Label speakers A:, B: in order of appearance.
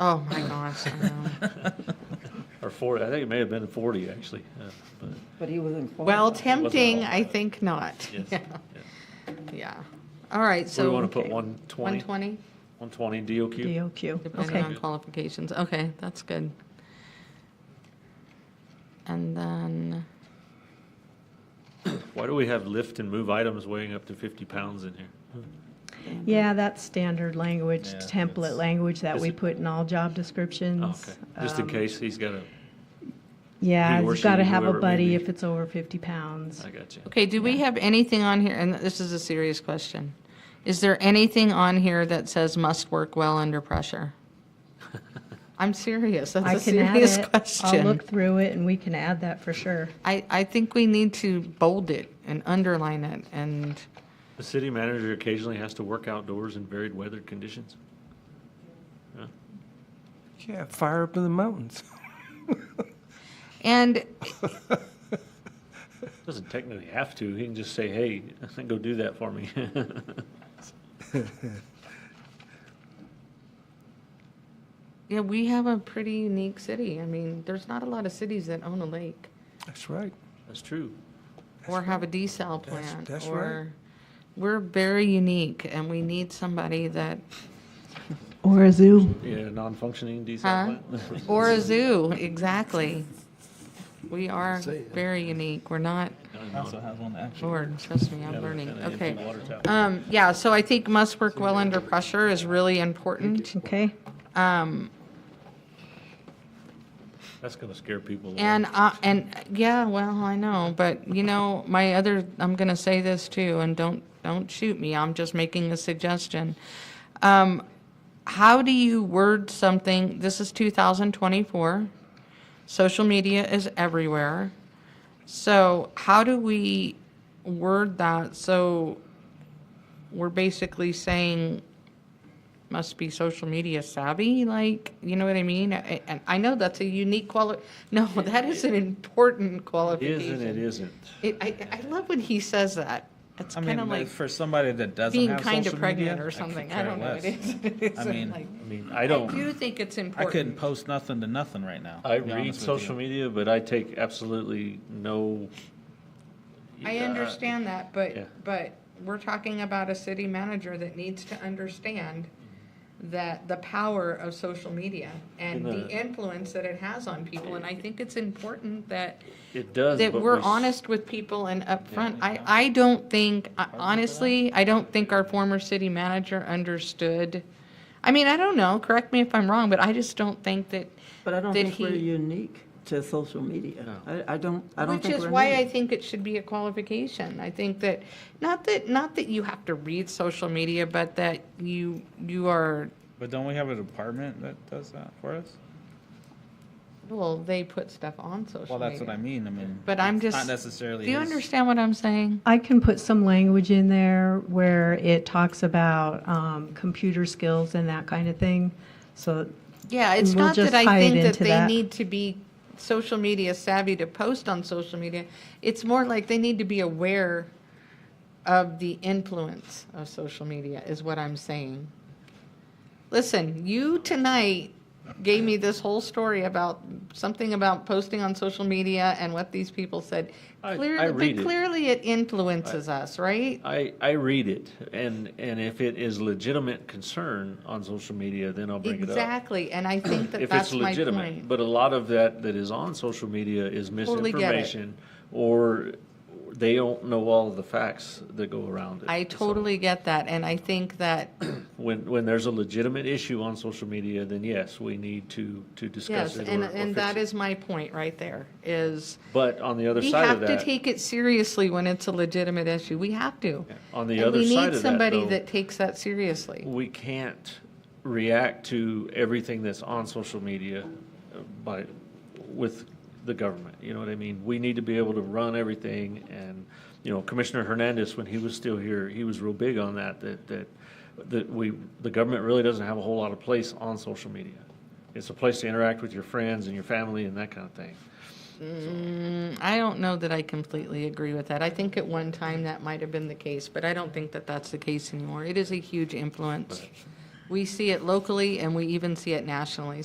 A: Oh, my gosh, I know.
B: or 40, I think it may have been 40, actually. uh, but
C: But he was informed.
A: Well,
C: by-
A: tempting, I think not.
B: yes,
A: Yeah,
B: yeah.
A: Yeah. All right,
B: We
A: so.
B: want to put 120,
A: 120,
B: 120 DOQ.
D: DOQ,
A: depending
D: okay.
A: on qualifications. Okay, that's good. And then,
B: Why do we have lift and move items weighing up to 50 pounds in here?
D: Yeah, that's standard language,
B: Yeah,
D: template
B: it's-
D: language that
B: is
D: we
B: it- Oh,
D: put in all job descriptions.
B: Okay, just in
D: Um,
B: case he's got a,
D: Yeah,
B: he or
D: you've got to
B: she,
D: have a
B: whoever it may
D: buddy
B: be.
D: if it's over 50 pounds.
B: I got you.
A: okay, do we have anything on here, and this is a serious question. Is there anything on here that says must work well under pressure? I'm serious,
D: I
A: that's a
D: can add
A: serious
D: it.
A: question.
D: I'll look through it and we can add that for sure.
A: I, I think we need to bold it and underline it and,
B: The city manager occasionally has to work outdoors in varied weather conditions.
E: Yeah, fire up in the mountains.
A: and
B: Doesn't technically have to, he can just say, hey, go do that for me.
A: Yeah, we have a pretty unique city. I mean, there's not a lot of cities that own a lake
E: That's right.
B: That's true.
A: or have a desal
E: That's-
A: plant.
E: that's right.
A: or We're very unique and we need somebody that,
D: Or a zoo.
B: Yeah, non-functioning diesel
A: huh?
B: plant.
A: Or a zoo, exactly. We are very unique. We're not,
F: Also has one that actually.
A: Lord, trust me, I'm learning.
B: kinda empty
A: Okay.
B: water tower.
A: Um, yeah, so I think must work well under pressure is really important.
D: Okay,
A: Um,
B: That's gonna scare people. away.
A: And, uh, and, yeah, well, I know, but, you know, my other, I'm gonna say this too, and don't, don't shoot me, I'm just making a suggestion. Um, how do you word something, this is two thousand twenty-four, social media is everywhere. So how do we word that so we're basically saying must be social media savvy, like, you know what I mean? I- And I know that's a unique quali, no, that is an important
B: It is
A: qualification.
B: and it isn't.
A: It, I, I love when he says that. It's
F: I
A: kind of
F: mean,
A: like
F: like, for somebody that doesn't
A: being
F: have
A: kind of
F: social media.
A: pregnant or
F: I could
A: something. I
F: care
A: don't know. It
F: less.
A: is, it
F: I
A: isn't
F: mean,
A: like.
B: I mean, I
A: I do
B: don't,
A: think it's
F: I
A: important.
F: couldn't post nothing to nothing right now.
B: I
F: to be
B: read
F: honest with you.
B: social media, but I take absolutely no. uh,
A: I
B: Yeah,
A: understand that,
B: Yeah.
A: but, but we're talking about a city manager that needs to understand that the power of social media and
B: In
A: the
B: the-
A: influence that it has on people, and I think it's important that,
B: It does,
A: that
B: but
A: we're
B: we s-
A: honest with people and upfront. I, I don't think, I- honestly, I don't think our former city manager understood. I mean, I don't know, correct me if I'm wrong, but I just don't think that,
G: But I don't
A: Did
G: think we're
A: he-
G: unique to social media. I, I don't, I don't
A: Which
G: think
A: is
G: we're
A: why I
G: unique.
A: think it should be a qualification. I think that, not that, not that you have to read social media, but that you, you are,
F: But don't we have a department that does that for us?
A: well, they put stuff on social media.
F: Well, that's what I mean. I mean,
A: But I'm
F: it's
A: just-
F: not necessarily.
A: Do you
F: his-
A: understand what I'm saying?
D: I can put some language in there where it talks about um, computer skills and that kind of thing. So
A: Yeah, it's
D: We'll
A: not that
D: just
A: I
D: tie it
A: think that
D: into
A: they
D: that.
A: need to be social media savvy to post on social media. It's more like they need to be aware of the influence of social media, is what I'm saying. Listen, you tonight gave me this whole story about something about posting on social media and what these people said.
B: I-
A: Clear-
B: I read it.
A: But clearly it influences us, right?
B: I, I read it, and, and if it is legitimate concern on social media, then I'll bring it up.
A: Exactly, and I think that
B: If it's
A: that's my
B: legitimate,
A: point.
B: but a lot of that that is on social media is
A: Totally get it.
B: misinformation, or they don't know all of the facts that go around it.
A: I
B: So
A: totally get that, and I think that
B: When, when there's a legitimate issue on social media, then yes, we need to, to discuss
A: Yes,
B: it
A: and,
B: or or
A: and
B: fix
A: that
B: it.
A: is my point right there, is
B: But on the other
A: we
B: side of
A: have to
B: that,
A: take it seriously when it's a legitimate issue. We have to.
B: on the other
A: And
B: side
A: we need
B: of that,
A: somebody
B: though,
A: that takes that seriously.
B: we can't react to everything that's on social media uh, by, with the government, you know what I mean? We need to be able to run everything, and, you know, Commissioner Hernandez, when he was still here, he was real big on that, that, that, that we, the government really doesn't have a whole lot of place on social media. It's a place to interact with your friends and your family and that kind of thing.
A: Mm, I don't know that I completely agree with that. I think at one time that might have been the case, but I don't think that that's the case anymore. It is a huge influence We see it locally and we even see it nationally.